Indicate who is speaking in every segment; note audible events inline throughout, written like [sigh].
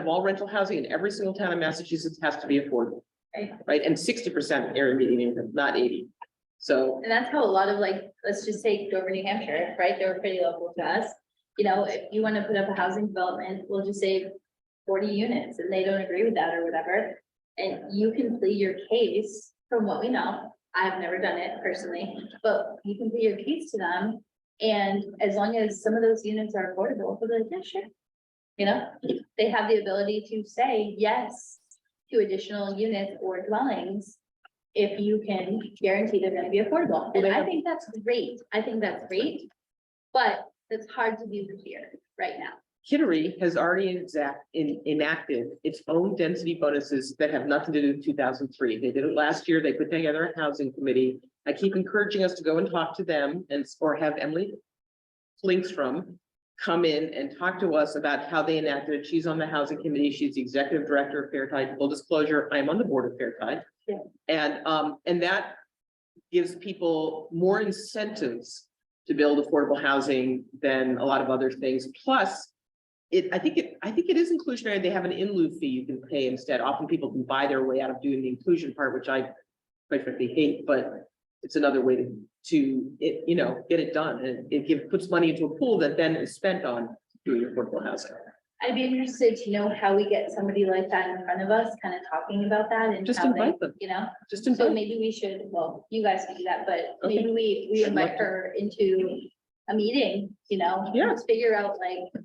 Speaker 1: of all rental housing in every single town in Massachusetts has to be affordable.
Speaker 2: Right.
Speaker 1: Right, and sixty percent area median income, not eighty. So,
Speaker 2: And that's how a lot of like, let's just take Dover, New Hampshire, right? They were pretty local to us. You know, if you want to put up a housing development, we'll just say forty units and they don't agree with that or whatever. And you can plead your case from what we know. I've never done it personally, but you can plead your case to them. And as long as some of those units are affordable, they'll be like, yeah, sure. You know, they have the ability to say yes to additional units or dwellings if you can guarantee they're gonna be affordable. And
Speaker 1: they
Speaker 2: I
Speaker 1: have-
Speaker 2: think that's great. I think that's great. But it's hard to do here right now.
Speaker 1: Kittery has already exact, in, enacted its own density bonuses that have nothing to do with two thousand three. They did it last year. They put together a housing committee. I keep encouraging us to go and talk to them and, s- or have Emily links from come in and talk to us about how they enacted it. She's on the housing committee. She's the executive director of Fair Tide. Full disclosure, I'm on the board of Fair Tide.
Speaker 2: Yeah.
Speaker 1: And, um, and that gives people more incentives to build affordable housing than a lot of other things. Plus, it, I think it, I think it is inclusionary. They have an in lieu fee you can pay instead. Often people can buy their way out of doing the inclusion part, which I quite frankly hate, but it's another way to, to, it, you know, get it done. And it give, puts money into a pool that then is spent on doing affordable housing.
Speaker 2: I'd be interested to know how we get somebody like that in front of us, kind of talking about that and
Speaker 1: Just
Speaker 2: how they,
Speaker 1: invite them.
Speaker 2: you know?
Speaker 1: Just
Speaker 2: So
Speaker 1: invite,
Speaker 2: maybe we should, well, you guys can do that, but
Speaker 1: Mhm. Okay.
Speaker 2: maybe we, we
Speaker 1: I'd love
Speaker 2: invite
Speaker 1: to.
Speaker 2: her into a meeting, you know?
Speaker 1: Yeah.
Speaker 2: Let's Figure out like,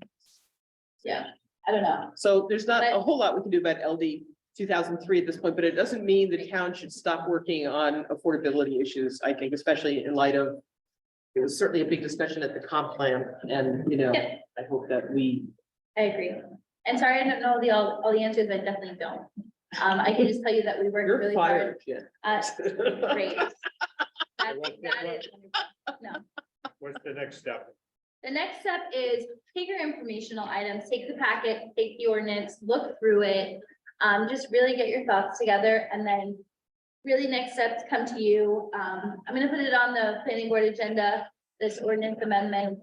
Speaker 2: yeah, I don't know.
Speaker 1: so there's not a
Speaker 2: But-
Speaker 1: whole lot we can do about LD two thousand three at this point, but it doesn't mean the town should stop working on affordability issues, I think, especially in light of it was certainly a big discussion at the comp plan and, you know,
Speaker 2: Yeah.
Speaker 1: I hope that we
Speaker 2: I agree. And sorry, I don't know the, all, all the answers. I definitely don't. Um, I can just tell you that we worked
Speaker 1: You're
Speaker 2: really hard.
Speaker 1: fired, Jen.
Speaker 2: Uh,
Speaker 1: Great. [laughs]
Speaker 2: great. That- that is- No.
Speaker 3: What's the next step?
Speaker 2: The next step is take your informational items, take the packet, take the ordinance, look through it. Um, just really get your thoughts together and then really next steps come to you. Um, I'm gonna put it on the planning board agenda, this ordinance amendment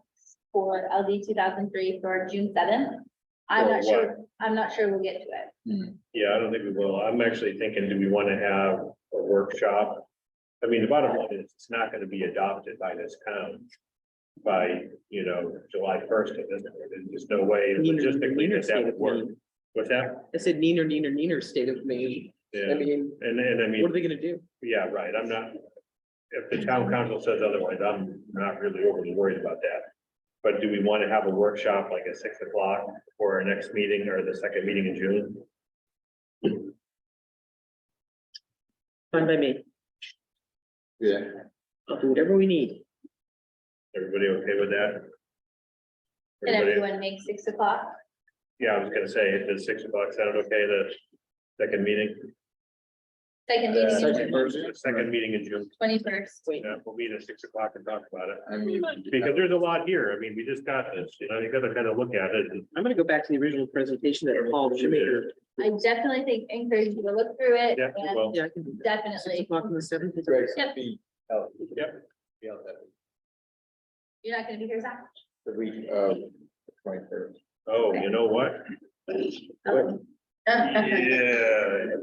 Speaker 2: for LD two thousand three for June seventh. I'm
Speaker 3: For
Speaker 2: not sure, I'm not sure we'll get to it.
Speaker 3: Yeah, I don't think we will. I'm actually thinking, do we want to have a workshop? I mean, the bottom line is, it's not going to be adopted by this town by, you know, July first, there's just no way logistically that that would work. What's that?
Speaker 1: I said neener, neener, neener state of Maine. I
Speaker 3: Yeah,
Speaker 1: mean,
Speaker 3: and, and I mean.
Speaker 1: what are they gonna do?
Speaker 3: Yeah, right, I'm not, if the town council says otherwise, I'm not really overly worried about that. But do we want to have a workshop like at six o'clock for our next meeting or the second meeting in June?
Speaker 1: Fine by me.
Speaker 4: Yeah,
Speaker 1: I'll do whatever we need.
Speaker 3: Everybody okay with that?
Speaker 2: Can
Speaker 3: Everybody,
Speaker 2: everyone make six o'clock?
Speaker 3: yeah, I was gonna say, does six o'clock sound okay, the second meeting?
Speaker 2: Second meeting,
Speaker 4: Second.
Speaker 3: The Uh, Second meeting in June,
Speaker 2: twenty-first.
Speaker 1: Wait,
Speaker 3: yeah, we'll meet at six o'clock and talk about it,
Speaker 4: I mean.
Speaker 3: because there's a lot here, I mean, we just got this, you know, you gotta kind of look at it. and-
Speaker 1: I'm gonna go back to the original presentation that Paul
Speaker 3: Should be there.
Speaker 1: Schmidt.
Speaker 2: I definitely think, encourage you to look through it
Speaker 3: Yeah,
Speaker 2: and
Speaker 3: well,
Speaker 1: Yeah, I can do that. Six
Speaker 2: definitely,
Speaker 1: o'clock on the seventh.
Speaker 4: Greg,
Speaker 2: Yep.
Speaker 4: be-
Speaker 3: yep,
Speaker 4: be out that week,
Speaker 2: you're not gonna be here, Zach?
Speaker 4: The week of twenty third.
Speaker 3: oh, you know what?
Speaker 2: [laughs] Oh.
Speaker 3: Yeah.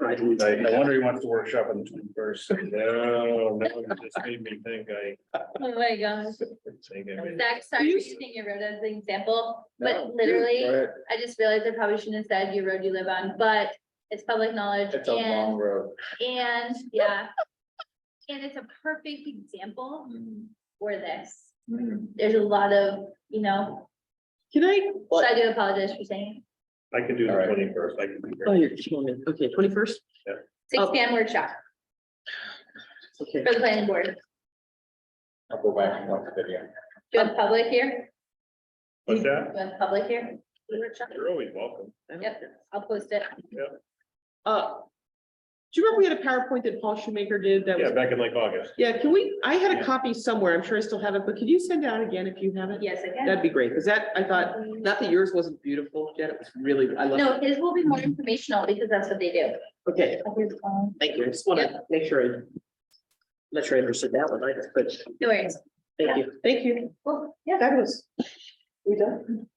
Speaker 1: Right.
Speaker 3: I, I wonder he wants to workshop on the twenty first. No, no, it just made me think I,
Speaker 2: [laughs] Oh my gosh.
Speaker 3: think I made.
Speaker 2: Zach, sorry for using your road as an example, but
Speaker 4: Go
Speaker 2: literally,
Speaker 4: ahead,
Speaker 2: I just realized I probably shouldn't have said your road you live on, but it's public knowledge
Speaker 4: it's a long
Speaker 2: and,
Speaker 4: road.
Speaker 2: and, yeah. And it's a perfect example for this.
Speaker 1: Hmm.
Speaker 2: There's a lot of, you know,
Speaker 1: Can I?
Speaker 2: so I do apologize for saying
Speaker 3: I can do
Speaker 4: All
Speaker 3: the
Speaker 4: right.
Speaker 3: twenty first, I can be
Speaker 1: Oh,
Speaker 3: here.
Speaker 1: you're killing me. Okay, twenty first?
Speaker 2: six
Speaker 1: Oh.
Speaker 2: P M workshop
Speaker 1: Okay.
Speaker 2: for the planning board.
Speaker 4: I'll go back and watch the video.
Speaker 2: Do
Speaker 1: Oh.
Speaker 2: you have public here?
Speaker 3: What's that?
Speaker 2: Do you have public here? for the workshop?
Speaker 3: You're always welcome.
Speaker 2: Yep, I'll post it.
Speaker 1: Uh, do you remember we had a PowerPoint that Paul Schumaker did that
Speaker 3: Yeah,
Speaker 1: was,
Speaker 3: back in like August.
Speaker 1: yeah, can we, I had a
Speaker 3: Yeah.
Speaker 1: copy somewhere. I'm sure I still have it, but could you send out again if you have it?
Speaker 2: Yes, I can.
Speaker 1: That'd be great, because that, I thought, not that yours wasn't beautiful, Jen, it was really, I love
Speaker 2: No, his will be more informational because that's what they do.
Speaker 1: it. Okay,
Speaker 2: Here's, um,
Speaker 1: thank you. I just want to make sure I, I'm not sure I understood that one either, but
Speaker 2: No worries.
Speaker 1: thank you, thank you.
Speaker 2: Well, yeah,
Speaker 1: Fabulous. We done?